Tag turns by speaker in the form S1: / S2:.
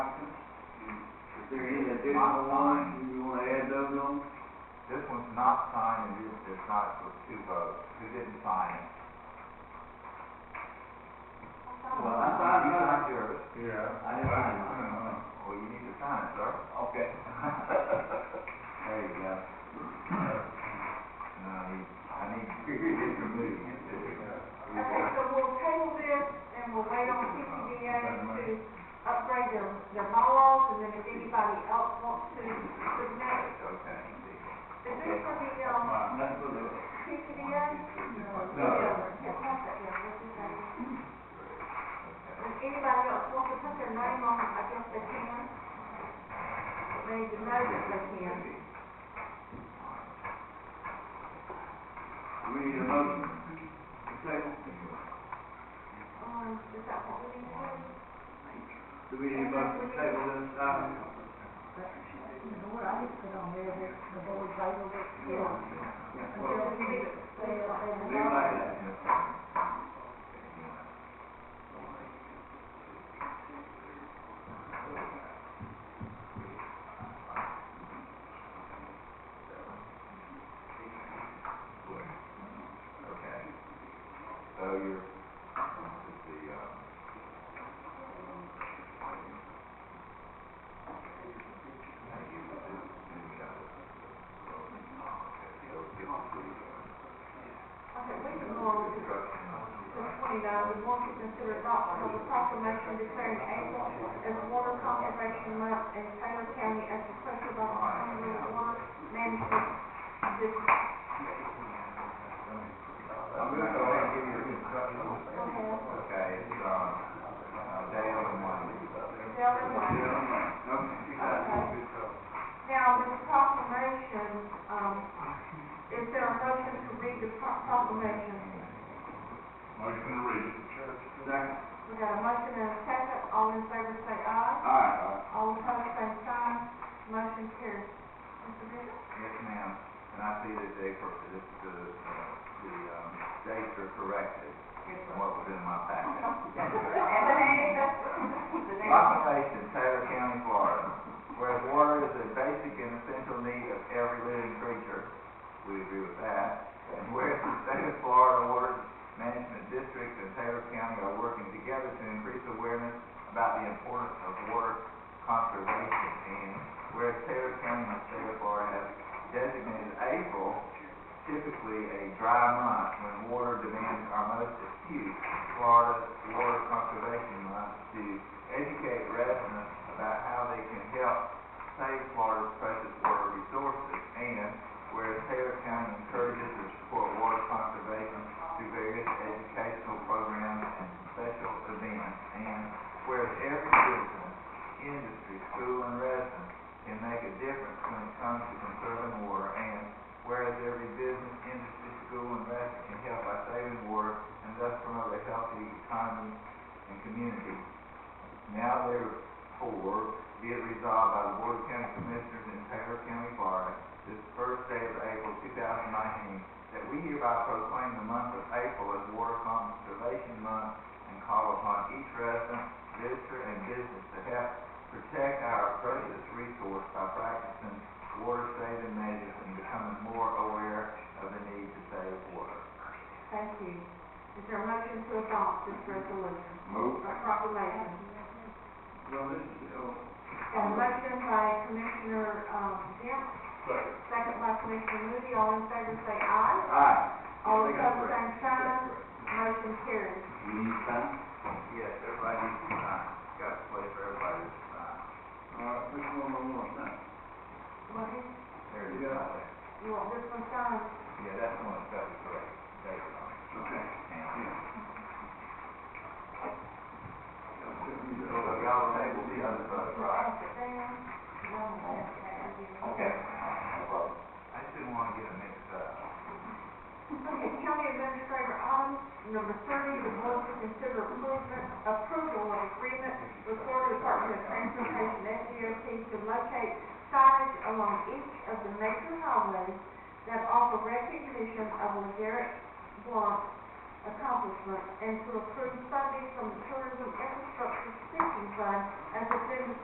S1: additional ones,
S2: Modified.
S1: you wanna add those on?
S2: This one's not signed, and this is not, so it's two votes, who didn't sign it?
S1: Well, I signed
S2: You
S1: mine.
S2: signed yours.
S1: Yeah. I
S2: Well,
S1: didn't sign
S2: no, no, no.
S1: mine.
S2: Well, you need to sign it, sir.
S1: Okay. There you go.
S2: No, I need, I need it removed.
S3: Okay, so we'll table this and we'll wait on TCDA to upgrade their, their models and then if anybody else wants to submit,
S2: Okay.
S3: is this for the, um,
S1: That's what it is.
S3: TCDA?
S1: No.
S3: Yeah, that's it, yeah, this is it. If anybody else wants to put their name on, I guess they can. They need to know that they can.
S1: We need a motion. Second.
S3: Um, is that what we need to do?
S1: Do we need a motion to table this item?
S4: What I had put on there, was the board labeled it, yeah.
S1: Well,
S4: Until we get it, they,
S1: leave it like
S2: Oh,
S1: that.
S2: Okay. So you're, this is the, uh, thank you, this is, the, uh, so this is the, uh,
S3: Okay, we can go on to the twenty-nine, uh, we want to consider adoption of a proclamation declaring April as Water Conservation Month in Taylor County as the pressure by the County Water Management District.
S2: I'm gonna go ahead and give you the instructions.
S3: Go ahead.
S2: Okay, it's, um, uh, Dale and Wendy.
S3: Tell them why. Now, this proclamation, um, is there a motion to read the pro- proclamation?
S5: Motion to read it.
S1: Second.
S3: We got a motion and a second, all in favor say aye.
S1: All right.
S3: All opposed, same sign. Motion carries. Mr. Bishop?
S2: Yes, ma'am, and I see that they, cor- this, the, uh, the, um, dates are corrected from what was in my packet. Proclamation, Taylor County, Florida, where water is a basic and essential need of every living creature, we agree with that. And where the state of Florida Water Management District and Taylor County are working together to increase awareness about the importance of water conservation. And where Taylor County and the state of Florida have designated April typically a dry month when water demands are most acute, Florida Water Conservation Month to educate residents about how they can help save Florida's precious water resources. And whereas Taylor County encourages and supports water conservation through various educational programs and special events. And whereas every citizen, industry, school, and resident can make a difference when it comes to conserving water. And whereas every business, industry, school, and resident can help by saving water and thus promote a healthy economy and community. Now therefore, be it resolved by the Board of County Commissioners in Taylor County, Florida, this first day of April two thousand nineteen, that we hereby proclaim the month of April as Water Conservation Month and call upon each resident, visitor, and business to help protect our precious resource by practicing water-saving measures and becoming more aware of the need to save water.
S3: Thank you. Is there a motion to adopt this resolution?
S2: Move.
S3: Or proclamation?
S1: Well, this is, oh,
S3: Got a motion by Commissioner, um, Dent,
S5: Second.
S3: second by Commissioner Moody, all in favor say aye.
S1: aye.
S3: All
S1: They got
S3: opposed,
S1: correct.
S3: same sign. Motion carries.
S1: You need to sign?
S2: Yes, everybody needs to sign. Got a place for everybody to sign.
S1: All right, which one I want to sign?
S3: What is-
S2: There it is, right there.
S3: You want this one signed?
S2: Yeah, that's the one that's got the correct date on it.
S1: Okay.
S2: And- So
S1: Yeah.
S2: y'all table the other vote, uh, right?
S3: Pass it down. One last, that would be-
S2: Okay. I just didn't want to get it mixed up.
S3: Okay, county administrator item number thirty, the board to consider approval, approval of agreement with Florida Department of Transportation, FDOT, to locate signage along each of the major highways that offer recognition of LeGarrette Blount's accomplishments, and to approve funding from the Tourism Infrastructure Speaking Fund as a business